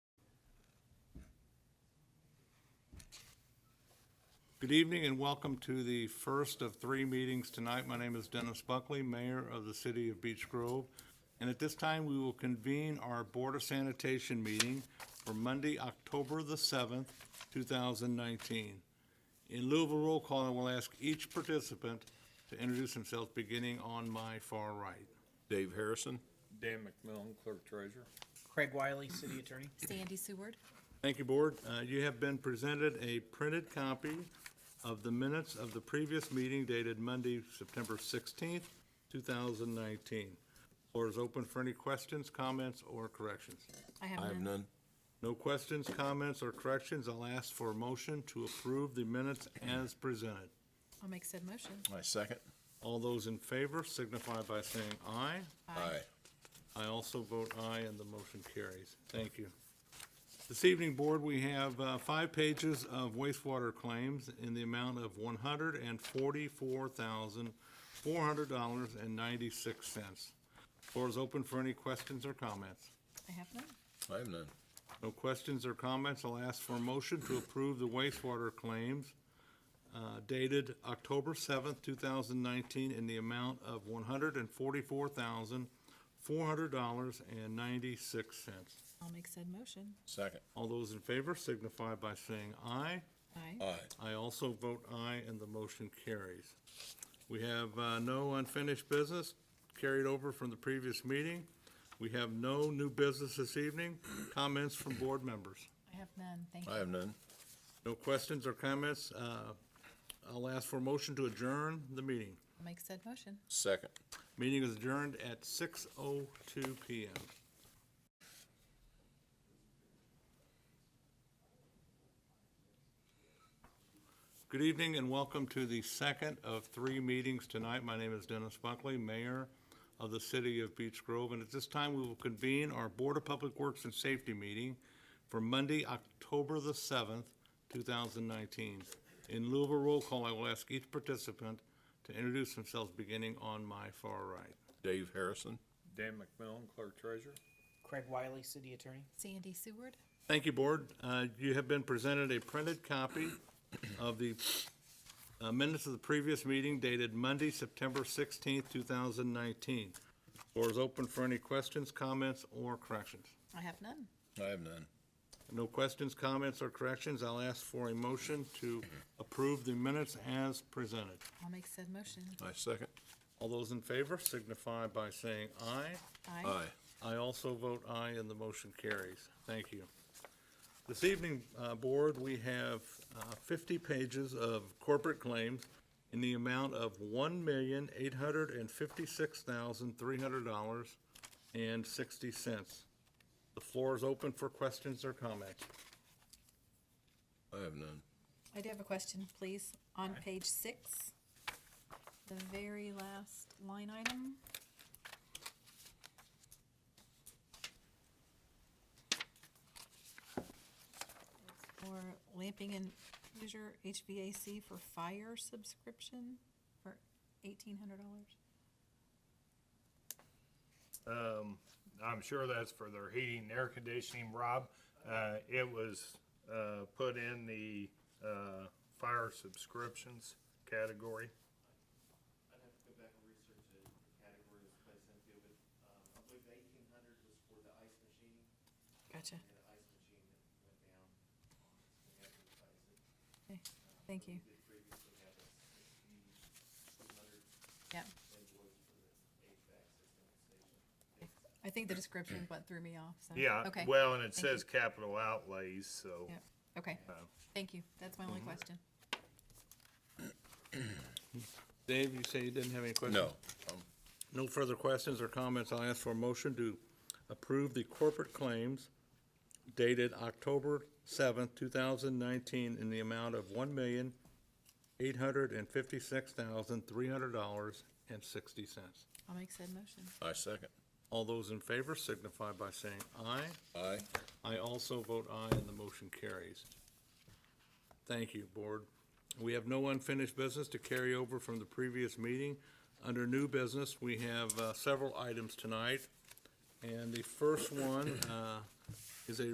Good evening and welcome to the first of three meetings tonight. My name is Dennis Buckley, Mayor of the City of Beech Grove. And at this time, we will convene our Board of Sanitation meeting for Monday, October the 7th, 2019. In lieu of a roll call, I will ask each participant to introduce himself, beginning on my far right. Dave Harrison. Dan McMillan, Clerk Treasurer. Craig Wiley, City Attorney. Sandy Seward. Thank you, Board. Uh, You have been presented a printed copy of the minutes of the previous meeting dated Monday, September 16th, 2019. Floor is open for any questions, comments, or corrections. I have I have none. none. No questions, comments, or corrections. I'll ask for a motion to approve the minutes as presented. I'll make said motion. My second. All those in favor signify by saying aye. Aye. I also vote aye, and the motion carries. Thank you. This evening, Board, we have uh, five pages of wastewater claims in the amount of $144,400.96. Floor is open for any questions or comments. I have none. I have none. No questions or comments, I'll ask for a motion to approve the wastewater claims uh, dated October 7th, 2019, in the amount of $144,400.96. I'll make said motion. Second. All those in favor signify by saying aye. Aye. Aye. I also vote aye, and the motion carries. We have uh, no unfinished business carried over from the previous meeting. We have no new business this evening. Comments from board members? I have none. Thank you. I have none. No questions or comments? Uh, I'll ask for a motion to adjourn the meeting. I'll make said motion. Second. Meeting is adjourned at 6:02 PM. Good evening and welcome to the second of three meetings tonight. My name is Dennis Buckley, Mayor of the City of Beech Grove. And at this time, we will convene our Board of Public Works and Safety meeting for Monday, October the 7th, 2019. In lieu of a roll call, I will ask each participant to introduce themselves, beginning on my far right. Dave Harrison. Dan McMillan, Clerk Treasurer. Craig Wiley, City Attorney. Sandy Seward. Thank you, Board. Uh, You have been presented a printed copy of the uh, minutes of the previous meeting dated Monday, September 16th, 2019. Floor is open for any questions, comments, or corrections. I have none. I have none. No questions, comments, or corrections. I'll ask for a motion to approve the minutes as presented. I'll make said motion. My second. All those in favor signify by saying aye. Aye. I also vote aye, and the motion carries. Thank you. This evening, uh, Board, we have uh, 50 pages of corporate claims in the amount of $1,856,300.60. The floor is open for questions or comments. I have none. I do have a question, please. On page six, the very last line item. For lamping and leisure HVAC for fire subscription for eighteen hundred dollars. Um, I'm sure that's for their heating and air conditioning, Rob. Uh, it was, uh, put in the, uh, fire subscriptions category. I'd have to go back and research the the category it was placed into, but, um, I believe the eighteen hundred was for the ice machine, and Gotcha. the ice machine that went down. We had to replace it. Okay, thank you. Did previously have a sixty-two hundred Yeah, invoice for the HVAC system at the station. I think the description went through me off, so. Yeah, Okay. well, and it Thank you. says capital outlays, so. Yeah, okay. uh, Thank you. That's my only mhm. question. Dave, you say you didn't have any questions? No. Um, No further questions or comments. I'll ask for a motion to approve the corporate claims dated October seventh, two thousand nineteen, in the amount of one million, eight hundred and fifty-six thousand, three hundred dollars and sixty cents. I'll make said motion. I second. All those in favor signify by saying aye. Aye. I also vote aye, and the motion carries. Thank you, Board. We have no unfinished business to carry over from the previous meeting. Under new business, we have uh, several items tonight, and the first one uh, is a